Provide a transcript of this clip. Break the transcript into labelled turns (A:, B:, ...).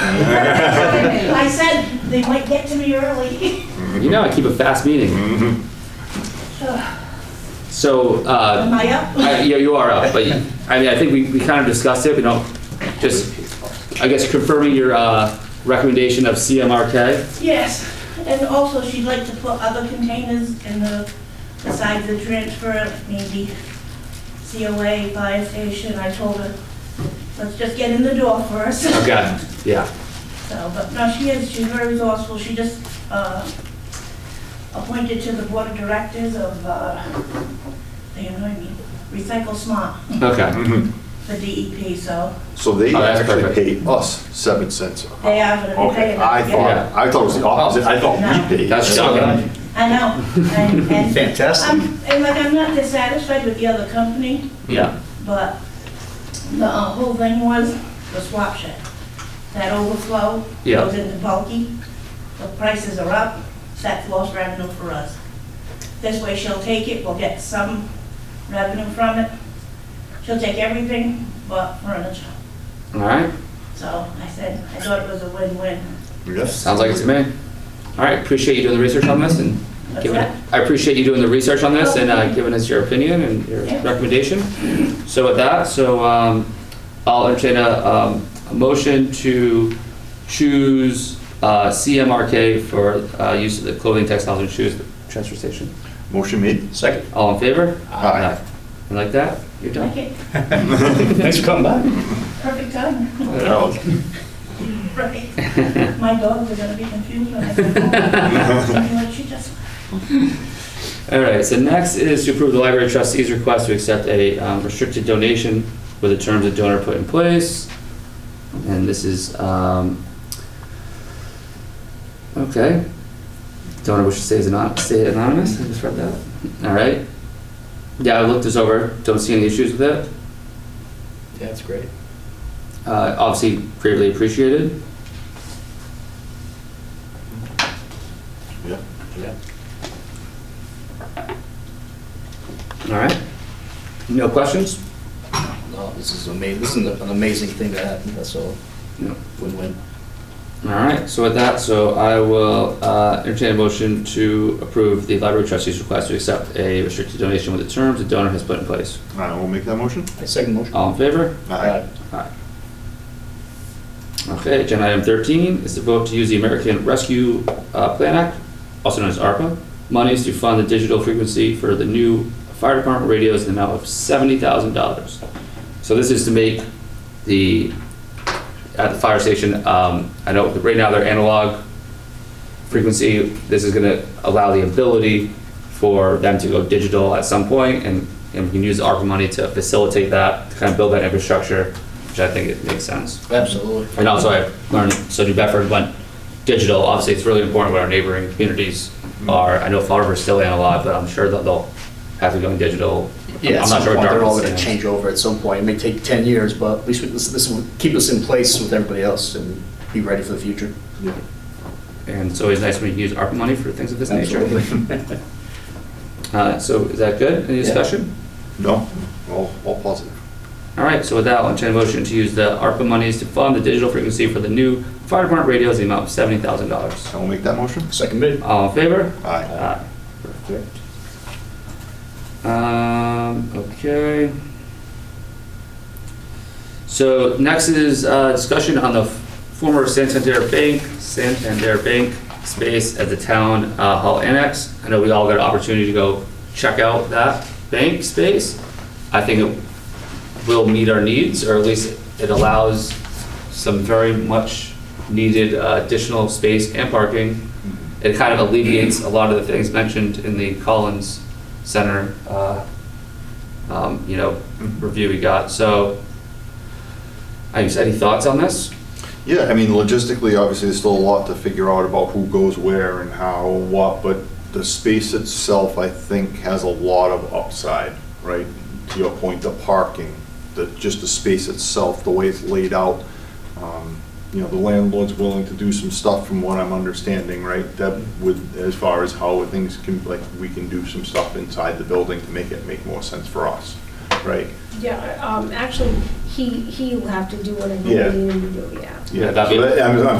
A: I said they might get to me early.
B: You know, I keep a fast meeting.
C: Mhm.
B: So,
A: Am
B: uh,
A: I up?
B: I- yeah, you are up, but, I mean, I think we, we kind of discussed it, We don't just, I guess confirming your, uh, recommendation of CMRK.
A: Yes, and also she'd like to put other containers in the, besides the transfer, maybe COA, fire station. I told her, let's just get in the door first.
B: Okay, yeah.
A: So, but no, she is, she's very resourceful. She just uh, appointed to the board of directors of, uh, they annoy me, Recycle Smart,
B: Okay,
C: Mhm.
A: the DEP, so
D: So they
B: Oh, that's
D: actually
B: perfect.
D: paid us seven cents.
A: they are gonna be
D: Okay,
A: paying.
D: I
A: us, yeah.
D: thought, I thought it was the opposite, I thought we paid.
B: that's
C: Okay.
B: shocking.
A: I know, and, and
C: Fantastic.
A: I'm, and like, I'm not dissatisfied with the other company,
B: Yeah,
A: but the uh, whole thing was the swap shed. That overflow
B: Yeah.
A: goes into bulky, the prices are up, that's lost revenue for us. This way she'll take it, we'll get some revenue from it. She'll take everything but furniture.
B: all right,
A: So I said, I thought it was a win-win.
D: Yes.
B: sounds like it's me. All right, appreciate you doing the research on this and
A: That's
B: giving,
A: right.
B: I appreciate you doing the research on this and, uh, giving us your opinion and your
A: Yeah.
B: recommendation. So with that, so, um, I'll entertain a, um, a motion to choose, uh, CMRK for, uh, use of the clothing, textiles and shoes, at the transfer station.
D: Motion made.
C: Second.
B: All in favor?
D: Aye.
B: You like that? You're done.
A: Like it,
C: Thanks for coming by.
A: perfect time.
D: Oh,
A: Right. My dog was gonna be confused when I said, oh, what she just
B: All right, so next is to approve the library trustee's request to accept a um, restricted donation with the terms of donor put in place. And this is, um, okay. Donor wishes to stay as anon, stay anonymous, I just read that. All right. Yeah, I looked this over, don't see any issues with it.
C: That's great.
B: Uh, obviously greatly appreciated.
D: yeah.
C: Yeah.
B: All right. No questions?
C: No, this is amazing. This is an amazing thing that happened. That's all.
B: No.
C: Win-win.
B: All right, so with that, so I will uh, entertain a motion to approve the library trustee's request to accept a restricted donation with the terms the donor has put in place.
D: I will make that motion.
C: I second motion.
B: All in favor?
D: Aye.
B: Aye. Okay, agenda item thirteen is to vote to use the American Rescue uh, Plan Act, also known as ARPA, monies to fund the digital frequency for the new fire department radios in the amount of seventy thousand dollars. So this is to make the, at the fire station, um, I know that right now they're analog frequency. This is gonna allow the ability for them to go digital at some point and, and we can use the ARPA money to facilitate that, to kind of build that infrastructure, which I think it makes sense.
C: Absolutely.
B: And also I learned, so New Bedford went digital, obviously it's really important what our neighboring communities
C: Mm-hmm.
B: are. I know Fall River's still analog, but I'm sure that they'll have to go digital.
C: Yeah, at
B: I'm
C: some
B: not sure.
C: point,
B: what
C: they're all
B: Dartmouth's
C: gonna
B: doing.
C: change over at some point. It may take ten years, but at least we- this, this will keep us in place with everybody else and be ready for the future.
D: Yeah.
B: And it's always nice when you can use ARPA money for things of this nature.
C: Absolutely.
B: Uh, so is that good? Any
C: Yeah.
B: discussion?
D: No, all, all positive.
B: All right, so with that, I'll entertain a motion to use the ARPA monies to fund the digital frequency for the new fire department radios, in the amount of seventy thousand dollars.
D: I will make that motion.
C: Second mid.
B: All in favor?
D: Aye.
B: Perfect. Um, okay. So next is, uh, discussion on the former Santander Bank, Santander Bank space at the town, uh, hall annex. I know we all got an opportunity to go check out that bank space. I think it will meet our needs, or at least it allows some very much needed uh, additional space and parking. It kind of alleviates a lot of the things mentioned in the Collins Center, uh, um, you know, review we got, so. I guess, any thoughts on this?
D: Yeah, I mean, logistically, obviously, there's still a lot to figure out about who goes where and how, what, but the space itself, I think, has a lot of upside, right? To your point, the parking, the, just the space itself, the way it's laid out. Um, You know, the landlord's willing to do some stuff from what I'm understanding, right? That with, as far as how things can, like, we can do some stuff inside the building to make it make more sense for us. right?
E: Yeah, um, actually, he, he will have to do whatever
D: Yeah.
E: we need him to do, yeah.
B: Yeah,
D: So
B: that'd be-
D: that- I'm, I'm